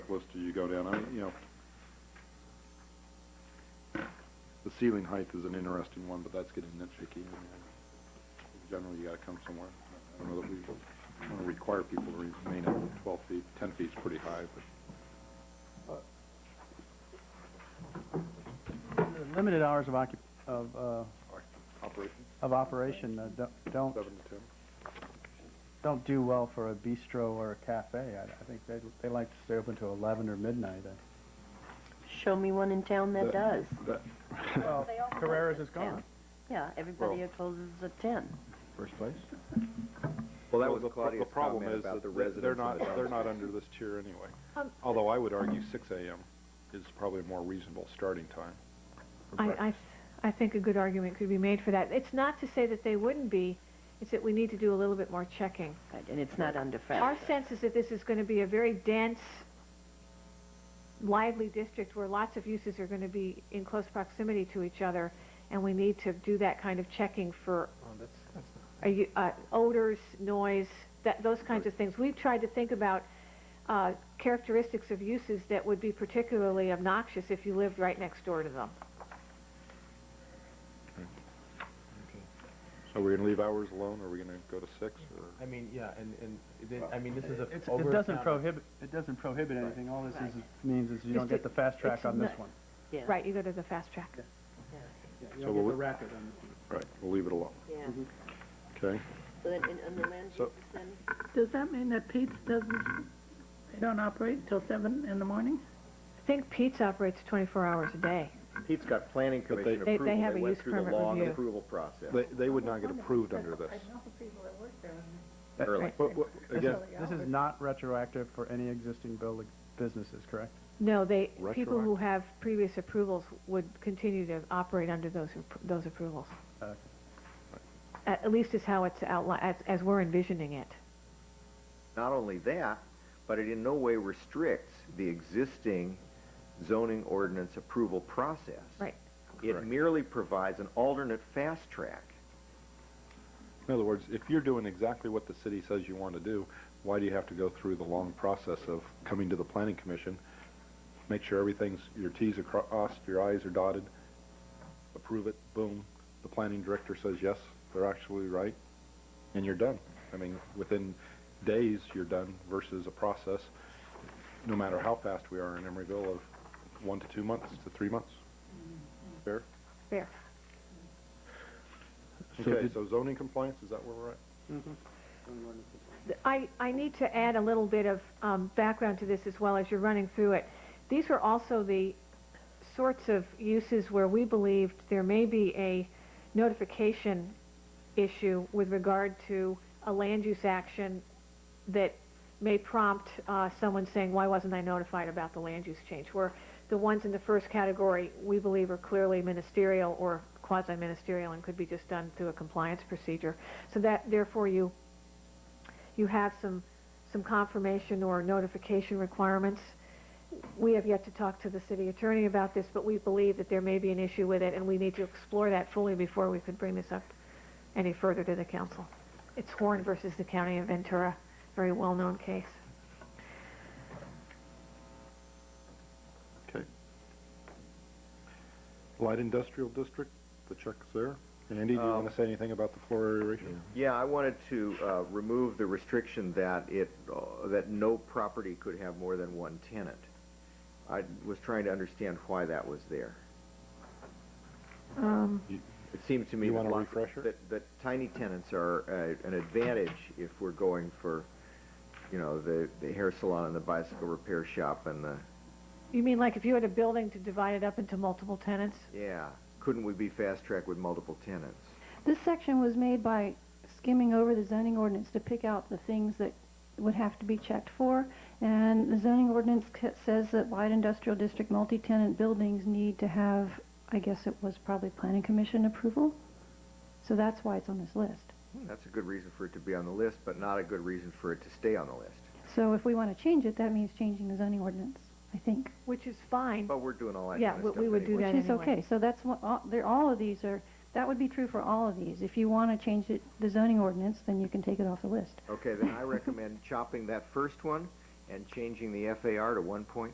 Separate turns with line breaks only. checklist do you go down? I, you know, the ceiling height is an interesting one, but that's getting nitpicky. I mean, In general, you gotta come somewhere. I don't know that we wanna require people to remain at twelve feet. Ten feet's pretty high, uh, but
Limited hours of occup, of, uh,
operation,
of operation, uh, don't- don't,
seven to ten.
don't do well for a bistro or a cafe. I, I think they, they like to stay open to eleven or midnight. uh,
Show me one in town
Uh,
that does.
That,
Well, Carrera's is gone.
Yeah, everybody
Well-
here closes at ten.
First place?
Well, that
Well,
was
the pro-
Claudia's
the problem
comment
is
about
that
the
they're-
residents
They're
of
not,
the
they're
downtown.
not under this tier anyway. Although I would argue six AM is probably a more reasonable starting time.
I, I th- I think a good argument could be made for that. It's not to say that they wouldn't be, it's that we need to do a little bit more checking.
Right, and it's not under
Our
Friday.
sense is that this is going to be a very dense, lively district where lots of uses are going to be in close proximity to each other, and we need to do that kind of checking for are you, uh, odors, noise, that, those kinds of things. We've tried to think about uh, characteristics of uses that would be particularly obnoxious if you lived right next door to them.
So we're gonna leave hours alone, or we are gonna go to six, or?
I mean, yeah, and, and, it- I mean, this is a
It's,
over.
it doesn't prohibit, it doesn't prohibit anything. All this is, means is you
Just
don't get
it-
the fast track
it's
on this
not-
one.
Yeah.
Right, you go to the fast track.
You
So we'll-
racket on this one.
Right, we'll leave it alone,
Yeah.
okay?
So then, in, on the land
So-
use then,
Does that mean that Pete's doesn't, they don't operate until seven in the morning?
I think Pete's operates 24 hours a day.
Pete's got planning
But they-
commission
They- they
approval.
have a use permit
went through the long
review.
approval process
They, they would not get approved under this.
early.
Right.
But, what- again,
This is not retroactive for any existing building, businesses, correct?
No, they, people who have previous approvals would continue to operate under those, appro- those approvals.
Okay.
At, at least is how it's outlined, as, as we're envisioning it.
Not only that, but it in no way restricts the existing zoning ordinance approval process.
Right.
It merely provides an alternate fast track.
in other words, if you're doing exactly what the city says you wanna do, why do you have to go through the long process of coming to the planning commission? Make sure everything's, your Ts are crossed, your Is are dotted, approve it, boom, the planning director says, yes, they're actually right, and you're done. I mean, within days, you're done versus a process, no matter how fast we are in Emeryville, of one to two months to three months. Fair?
Fair.
Okay, so zoning compliance, is that where we're at?
Th- I, I need to add a little bit of um, background to this as well as you're running through it. These were also the sorts of uses where we believed there may be a notification issue with regard to a land use action that may prompt uh, someone saying, why wasn't I notified about the land use change? Where the ones in the first category, we believe are clearly ministerial or quasi-ministerial and could be just done through a compliance procedure. So that, therefore, you you have some, some confirmation or notification requirements. We have yet to talk to the city attorney about this, but we believe that there may be an issue with it, and we need to explore that fully before we could bring this up any further to the council. It's Horn versus the County of Ventura, very well-known case.
Okay. Light industrial district, the check's there. Andy, do you want to say anything about the floor area ratio?
Yeah, I wanted to uh, remove the restriction that it, uh, that no property could have more than one tenant. I was trying to understand why that was there. It seems to me
You
that
want a
lots-
refresher?
that, that tiny tenants are uh, an advantage if we're going for, you know, the, the hair salon and the bicycle repair shop and the,
You mean like if you had a building to divide it up into multiple tenants?
yeah. Couldn't we be fast-tracked with multiple tenants?
This section was made by skimming over the zoning ordinance to pick out the things that would have to be checked for. And the zoning ordinance c- says that light industrial district multi-tenant buildings need to have, I guess it was probably planning commission approval. So that's why it's on this list.
That's a good reason for it to be on the list, but not a good reason for it to stay on the list.
So if we want to change it, that means changing the zoning ordinance, I think.
Which is fine.
But we're doing all that
Yeah,
kind of
we-
stuff
we would do
anyway.
that
Which is
anyway.
okay, so that's what, all, they're, all of these are, that would be true for all of these. If you want to change it, the zoning ordinance, then you can take it off the list.
Okay, then I recommend chopping that first one and changing the FAR to one point